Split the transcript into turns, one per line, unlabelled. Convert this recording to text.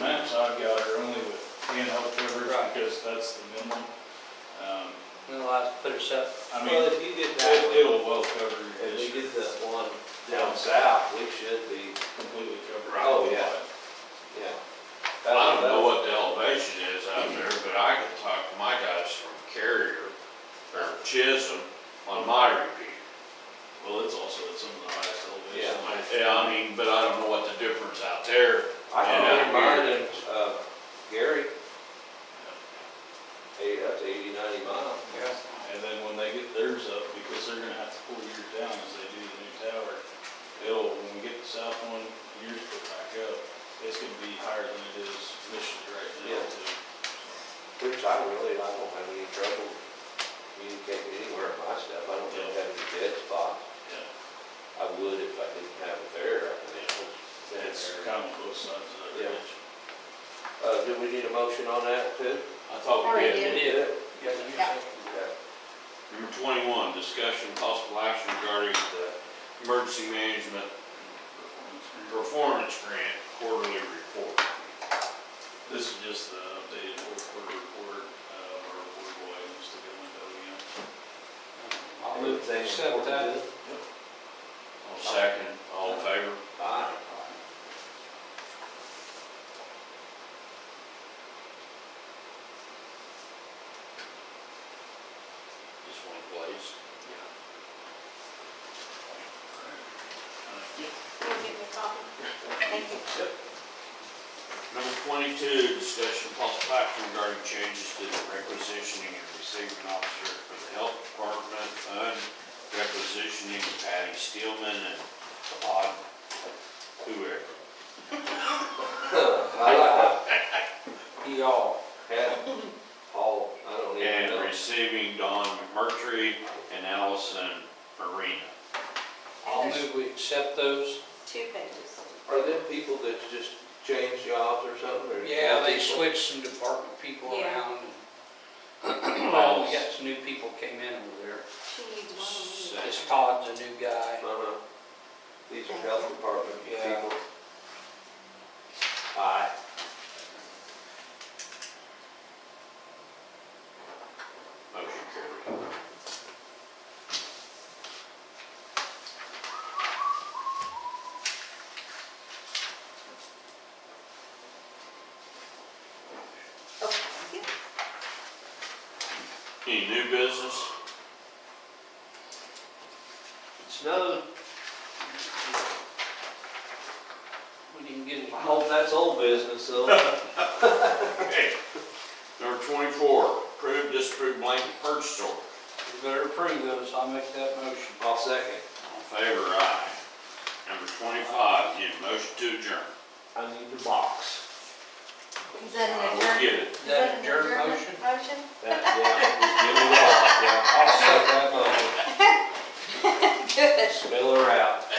maps I've got are only with handheld covers
Right.
because that's the minimum. Um,
We'll have to put it up.
I
Well,
mean,
if you did
it-
that,
it'll well cover your
if we
district,
did the one down south, we should be,
completely cover.
Right.
Oh, yeah. yeah.
I don't know what the elevation is out there, but I can talk to my guys from Carrier or Chisholm on my repeater.
Well, it's also at some of the highest elevations.
Yeah, I mean, but I don't know what the difference out there.
I
Yeah,
can
I'm
read mine and, uh, Gary. Eight, up to eighty, ninety miles. Yeah.
And then when they get theirs up, because they're gonna have to pull yours down as they do the new tower, it'll, when we get the south one, yours put back up, it's gonna be higher than it is Michigan right now
Yeah.
too.
Which I really, I don't have any trouble communicating anywhere in my stuff. I don't really have any dead spots.
Yeah,
I would if I didn't have it there, I can handle it.
it's kind of both sides of that
Yeah.
ridge.
Uh, do we need a motion on that too?
I thought we
Already
had.
did.
Yeah.
Yeah.
Yeah.
Number twenty-one, discussion possible action regarding the emergency management performance grant quarterly report.
This is just the updated fourth quarter report, uh, our report boy, just to get one done again.
I'll move to accept that.
All second, all in favor?
Aye.
Just one place.
Uh,
You'll give me a copy? Thank you.
Number twenty-two, discussion possible action regarding changes to the requisitioning and receiving officer for the health department fund, requisitioning Patty Steelman and Todd, whoever.
Aye.
Y'all.
Yeah. All, I don't even
And
know.
receiving Don McMurtry and Allison Marina.
I'll
There's
move we accept those.
Two pages.
Are there people that just change jobs or something? or-
Yeah, they switched some department people
Yeah.
around. and Well, we got some new people came in over there.
She needs one of them.
This Todd's a new guy.
Uh-huh. These are health department
Yeah.
people. Aye.
Motion carried.
Okay, thank you.
Any new business?
Snow,
We didn't get
I
him.
hope that's old business though.
Okay. Number twenty-four, approve, disapprove blanket purchase order.
You better approve those. I'll make that motion.
I'll second.
All in favor, aye. Number twenty-five, need a motion to adjourn.
I need the box.
Is that
I
an
will
adjournment?
get it.
Is that an adjourned motion?
Motion?
That, yeah, just give me the box, yeah. I'll second that motion.
Good.
Spell her out.